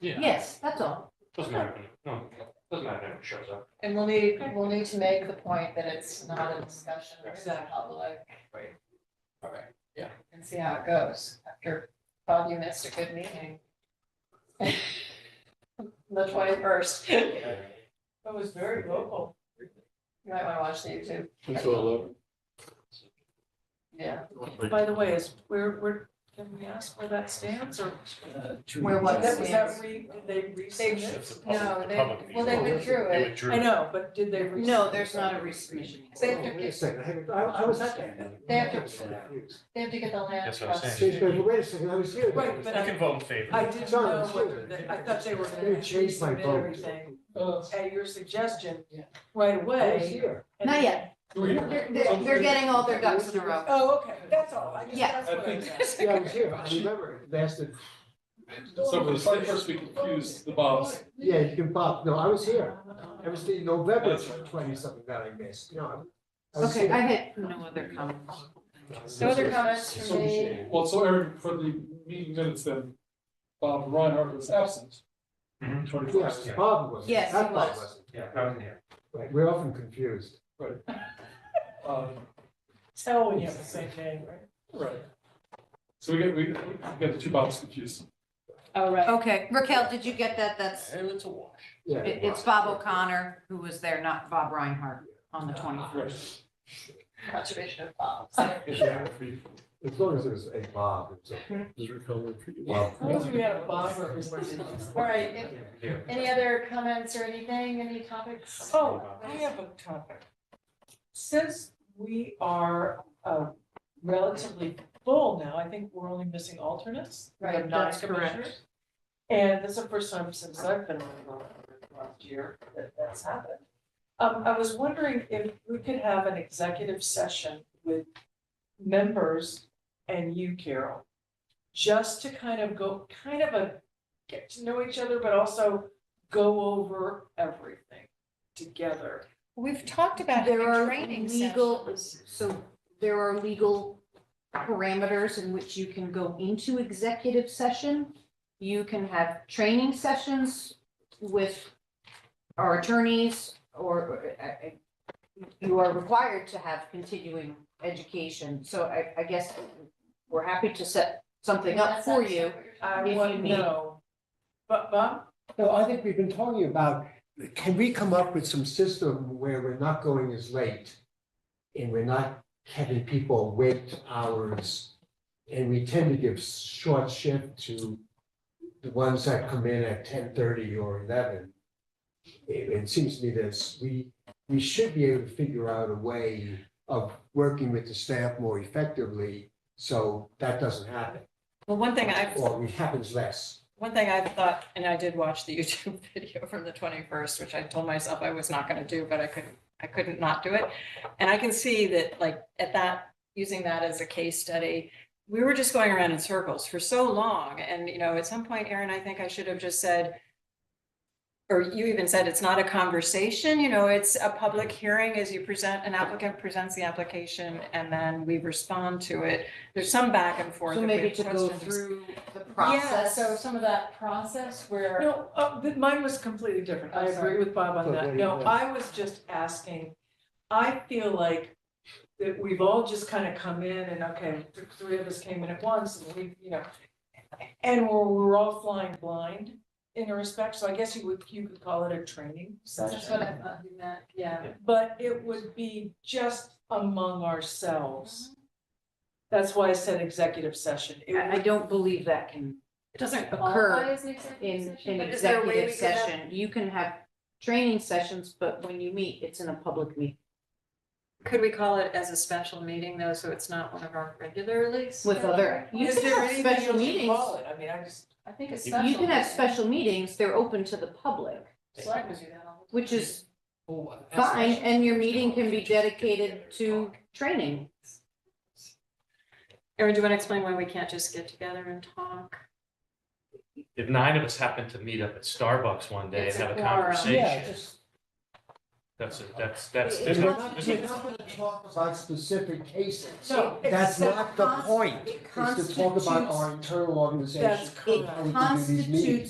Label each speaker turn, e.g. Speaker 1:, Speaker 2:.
Speaker 1: Yeah,
Speaker 2: Yes, that's all.
Speaker 1: doesn't matter, when it- no, doesn't matter when it shows up.
Speaker 3: And we'll need, we'll need to make the point that it's not a discussion with the
Speaker 1: Exactly.
Speaker 3: public
Speaker 1: All right.
Speaker 3: and see how it goes. After, Bob, you missed a good meeting. The twenty-first. You
Speaker 4: That was very local.
Speaker 3: might want to watch the YouTube.
Speaker 5: Until eleven.
Speaker 3: Yeah.
Speaker 4: By the way, is, where, where, can we ask where that stands or?
Speaker 3: Where what
Speaker 4: That was that
Speaker 3: stands?
Speaker 4: re, did they resubmit?
Speaker 1: That's the public-
Speaker 3: No,
Speaker 1: the
Speaker 3: they,
Speaker 1: public
Speaker 3: well, they
Speaker 1: meeting.
Speaker 3: withdrew
Speaker 1: They
Speaker 3: it.
Speaker 1: withdrew.
Speaker 4: I know, but did they? resubmit?
Speaker 2: No, there's not a resubmission.
Speaker 3: They
Speaker 6: Oh,
Speaker 3: have
Speaker 6: Wait a
Speaker 3: to,
Speaker 6: second, I haven't- I, I was at that. meeting.
Speaker 3: They have to-
Speaker 6: I was confused.
Speaker 3: they have to get the land
Speaker 1: That's what I'm
Speaker 3: trust.
Speaker 1: saying.
Speaker 6: Excuse me, wait a second, I was here.
Speaker 4: Right,
Speaker 1: You
Speaker 4: but
Speaker 1: can
Speaker 4: I,
Speaker 1: vote in favor.
Speaker 4: I didn't
Speaker 6: Sorry,
Speaker 4: know
Speaker 6: excuse
Speaker 4: whether,
Speaker 6: me.
Speaker 4: they- I thought they were
Speaker 6: They
Speaker 4: gonna
Speaker 6: changed my
Speaker 4: resubmit
Speaker 6: vote.
Speaker 4: everything
Speaker 6: Uh,
Speaker 4: at your suggestion
Speaker 6: Yeah.
Speaker 4: right
Speaker 6: I was
Speaker 4: away.
Speaker 6: here.
Speaker 4: and-
Speaker 2: Not yet. They're, they're- they're getting all their ducks in a row.
Speaker 4: Oh, okay, that's all, I just,
Speaker 2: Yeah.
Speaker 4: that's what I meant.
Speaker 6: Yeah, I was here, I remember, it lasted,
Speaker 5: So for the site first, we confused the bobs.
Speaker 6: yeah, you can pop, no, I was here. It was the November twenty something that I missed, you know. I was
Speaker 2: Okay,
Speaker 6: here.
Speaker 2: I had no other comments.
Speaker 3: No other comments from me.
Speaker 5: Well, so Eric, for the meeting minutes then, Bob Reinhardt was absent.
Speaker 1: Mhm.
Speaker 6: Yes,
Speaker 5: Twenty-first.
Speaker 6: Bob was.
Speaker 2: Yes, he
Speaker 6: Not Bob
Speaker 2: was.
Speaker 6: wasn't.
Speaker 1: Yeah, I wasn't here.
Speaker 6: Right, we're often confused.
Speaker 5: Um,
Speaker 4: Tell when you have the same name, right?
Speaker 5: right. So we get, we we get the two bobs confused.
Speaker 3: Oh, right.
Speaker 2: Okay, Raquel, did you get that? That's,
Speaker 1: And it's a wash.
Speaker 6: Yeah.
Speaker 2: it- it's Bob O'Connor who was there, not Bob Reinhardt on the
Speaker 5: Right.
Speaker 2: 21st.
Speaker 3: Conservation of Bob.
Speaker 6: Yeah, As long as it was a Bob, it's okay. Bob.
Speaker 4: As long as we had a Bob representing.
Speaker 3: All right, if-
Speaker 1: Yeah.
Speaker 3: any other comments or anything, any topics?
Speaker 4: Oh, I have a topic. Since we are uh, relatively full now, I think we're only missing alternates. We have
Speaker 3: Right,
Speaker 4: nine
Speaker 2: that's correct.
Speaker 4: commissioners. And this is the first time since I've been on the board last year that that's happened. Um, I was wondering if we could have an executive session with members and you, Carol. Just to kind of go, kind of a, get to know each other, but also go over everything together.
Speaker 3: We've talked about
Speaker 2: There are legal, so there are legal parameters in which you can go into executive session. You can have training sessions with our attorneys or uh, uh, you are required to have continuing education. So I, I guess we're happy to set something up for you.
Speaker 4: I
Speaker 2: If you
Speaker 4: wouldn't
Speaker 2: need-
Speaker 4: know. But, but,
Speaker 6: No, I think we've been talking about, can we come up with some system where we're not going as late? And we're not having people wait hours, and we tend to give short shift to the ones that come in at ten thirty or eleven. It, it seems to me that we, we should be able to figure out a way of working with the staff more effectively, so that doesn't happen,
Speaker 7: Well, one thing I've,
Speaker 6: or it happens less.
Speaker 7: one thing I've thought, and I did watch the YouTube video from the twenty-first, which I told myself I was not gonna do, but I couldn't, I couldn't not do it. And I can see that, like, at that, using that as a case study, we were just going around in circles for so long, and, you know, at some point, Erin, I think I should have just said, or you even said, it's not a conversation, you know, it's a public hearing as you present, an applicant presents the application, and then we respond to it. There's some back and forth.
Speaker 2: So
Speaker 7: if we
Speaker 2: maybe
Speaker 7: have
Speaker 2: to go
Speaker 7: questions.
Speaker 2: through the
Speaker 3: Process,
Speaker 2: process.
Speaker 3: so some of that process where.
Speaker 4: no, uh, but mine was completely different. I
Speaker 3: I'm sorry.
Speaker 4: agree with Bob on
Speaker 6: Oh,
Speaker 4: that.
Speaker 6: there
Speaker 4: No,
Speaker 6: you go.
Speaker 4: I was just asking. I feel like that we've all just kind of come in and, okay, th- three of us came in at once and we, you know, and we're, we're all flying blind in a respect, so I guess you would, you could call it a training
Speaker 3: That's what
Speaker 4: session.
Speaker 3: I thought you meant, yeah.
Speaker 4: But it would be just among ourselves. That's why I said executive session. It
Speaker 2: I I
Speaker 4: would
Speaker 2: don't believe that can
Speaker 7: It doesn't
Speaker 2: occur
Speaker 3: Qualify as an executive
Speaker 2: in
Speaker 3: session?
Speaker 2: an
Speaker 7: But is there a way
Speaker 2: executive
Speaker 7: we could have-
Speaker 2: session. You can have training sessions, but when you meet, it's in a public meeting
Speaker 7: Could we call it as a special meeting though, so it's not one of our regularly?
Speaker 2: with other. you
Speaker 4: Is
Speaker 2: can
Speaker 4: there
Speaker 2: have
Speaker 4: anything
Speaker 2: special
Speaker 4: else you
Speaker 2: meetings.
Speaker 4: call it? I mean, I just.
Speaker 3: I think it's special.
Speaker 2: You can have special meetings, they're open to the public,
Speaker 3: Select would do that all
Speaker 2: which is fine, and your meeting can be dedicated to training.
Speaker 7: Erin, do you want to explain why we can't just get together and talk?
Speaker 1: If nine of us happen to meet up at Starbucks one day and
Speaker 3: It's a
Speaker 1: have a
Speaker 3: quorum.
Speaker 1: conversation,
Speaker 8: That's, it. that's, that's.
Speaker 2: It's
Speaker 6: And we're not,
Speaker 8: that's-
Speaker 6: we're not gonna talk about specific cases.
Speaker 4: No,
Speaker 6: That's not the point,
Speaker 2: It
Speaker 6: It's to talk about
Speaker 2: constitutes-
Speaker 6: our internal organization.
Speaker 4: that's
Speaker 6: how
Speaker 4: correct.
Speaker 6: we can do these meetings.
Speaker 2: constitutes